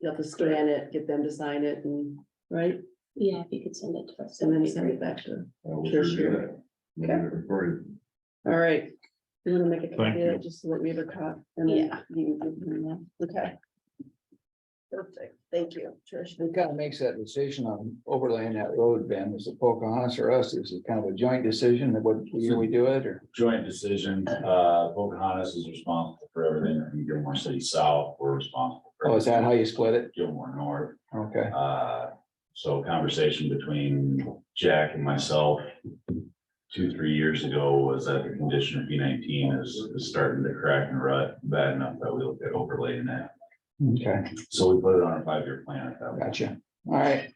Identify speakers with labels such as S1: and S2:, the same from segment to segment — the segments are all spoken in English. S1: you'll have to scan it, get them to sign it and, right?
S2: Yeah, if you could send it to us.
S1: And then send it back to, them.
S3: I will
S1: Sure,
S3: Uh, do
S1: sure.
S3: that. We'll get it recorded.
S1: all right. You wanna make a copy of
S3: Thank
S1: it, just so that we have a cop? and then
S2: Yeah.
S1: you can give them that. Okay. Perfect, thank you, Trish.
S4: Who kind of makes that decision on overlaying that road, Ben? Is it Pocahontas or us? Is it kind of a joint decision that what, year we do it or?
S5: joint decision, uh, Pocahontas is responsible for everything, and Gilmore City South, we're responsible. for
S4: Oh, is that how you split it?
S5: Gilmore North,
S4: Okay,
S5: uh, so conversation between Jack and myself. Two, three years ago was that the condition of B nineteen is, is starting to crack and rut bad enough that we looked at overlaying that.
S4: okay,
S5: So we put it on a five-year plan at that point.
S4: gotcha. All right.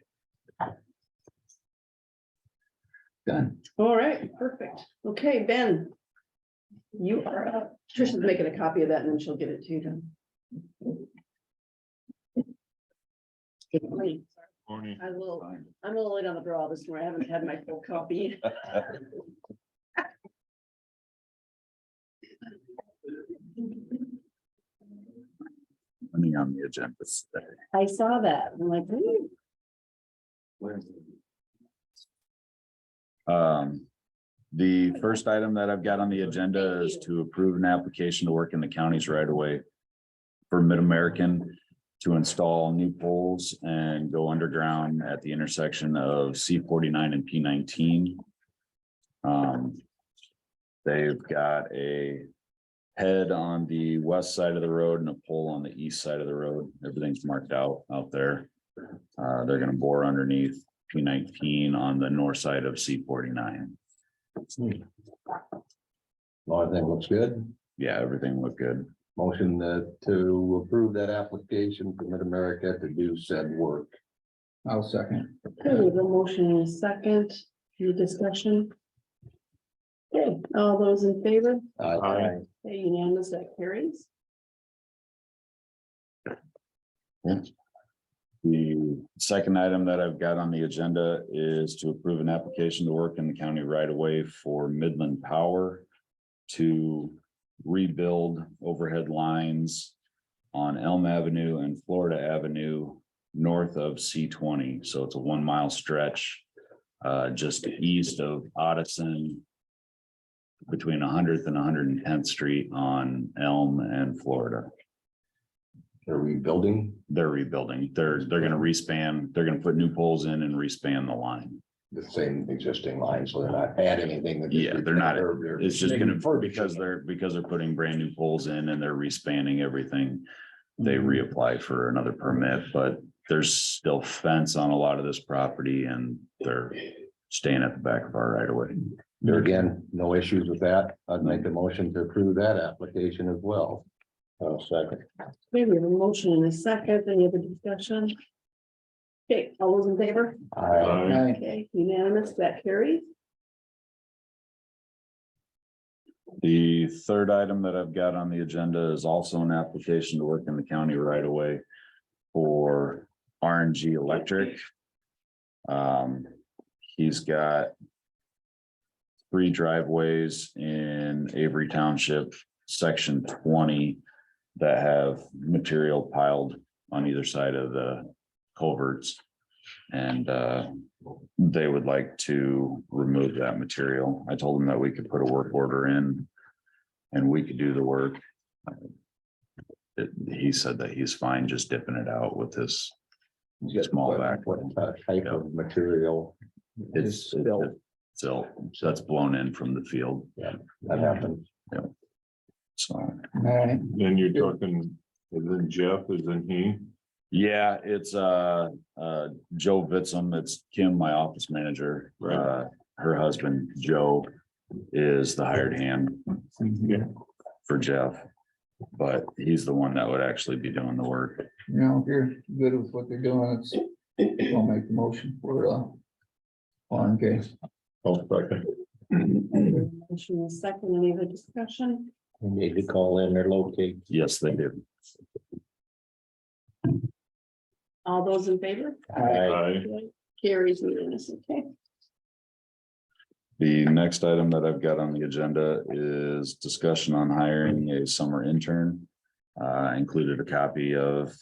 S4: Done.
S1: All right, perfect. Okay, Ben. You are, up. Trish is making a copy of that and then she'll give it to you then. Good morning.
S3: Morning.
S1: I will, I'm a little late on the draw this morning. I haven't had my full copy.
S5: Money on the agenda today.
S1: I saw that. I'm like, "Hmm,
S5: Um, the first item that I've got on the agenda is to approve an application to work in the counties right away For Mid-American to install new poles and go underground at the intersection of C forty-nine and P nineteen. Um, they've got a head on the west side of the road and a pole on the east side of the road. Everything's marked out out there. Uh, they're gonna bore underneath P nineteen on the north side of C forty-nine.
S3: Hmm. Well, I think looks good.
S5: Yeah, everything looked good.
S3: Motion that to approve that application for Mid-America to do said work.
S4: I'll second.
S1: okay, we have a motion in a second, any discussion? Okay, all those in favor,
S3: Aye.
S1: Okay, unanimous, that carries.
S5: The second item that I've got on the agenda is to approve an application to work in the county right away for Midland Power to rebuild overhead lines on Elm Avenue and Florida Avenue north of C twenty. So it's a one mile stretch uh, just east of Odison between hundredth and hundred and tenth street on Elm and Florida
S3: Are we building?
S5: they're rebuilding. They're, they're gonna respan, they're gonna put new poles in and respan the line.
S3: the same existing line, so they're not adding anything. that-
S5: Yeah, they're not-
S3: they're-
S5: It's just gonna, because they're, because they're putting brand new poles in and they're respanning everything. They reapply for another permit, but there's still fence on a lot of this property and they're staying at the back of our right of way.
S3: There again, no issues with that. I'd make a motion to approve that application as well. Uh, second.
S1: Okay, we have a motion in a second, any other discussion? Okay, all those in favor,
S3: Aye.
S4: Aye.
S1: okay, unanimous, that carries.
S5: The third item that I've got on the agenda is also an application to work in the county right away for RNG Electric. Um, he's got three driveways in Avery Township, section twenty, that have material piled on either side of the culverts. And, uh, they would like to remove that material. I told them that we could put a work order in and we could do the work. Uh, It- He said that he's fine just dipping it out with this small back.
S3: What uh, type of material
S5: It's,
S3: built.
S5: so that's blown in from the field.
S3: that happens?
S5: So,
S4: All right,
S6: Then you're talking, and then Jeff, is in he?
S5: yeah, it's, uh, uh, Joe Vitzum, it's Kim, my office manager.
S6: Right.
S5: Uh, her husband, Joe, is the hired hand.
S6: Yeah.
S5: for Jeff. But he's the one that would actually be doing the work.
S4: you know, if you're good with what they're doing, it's, I'll make the motion for uh. On case.
S6: I'll second.
S1: Motion in a second, any other discussion?
S3: We need to call in or locate.
S5: Yes, they do.
S1: All those in favor,
S6: Aye.
S1: carries unanimous, okay,
S5: The next item that I've got on the agenda is discussion on hiring a summer intern. Uh, I included a copy of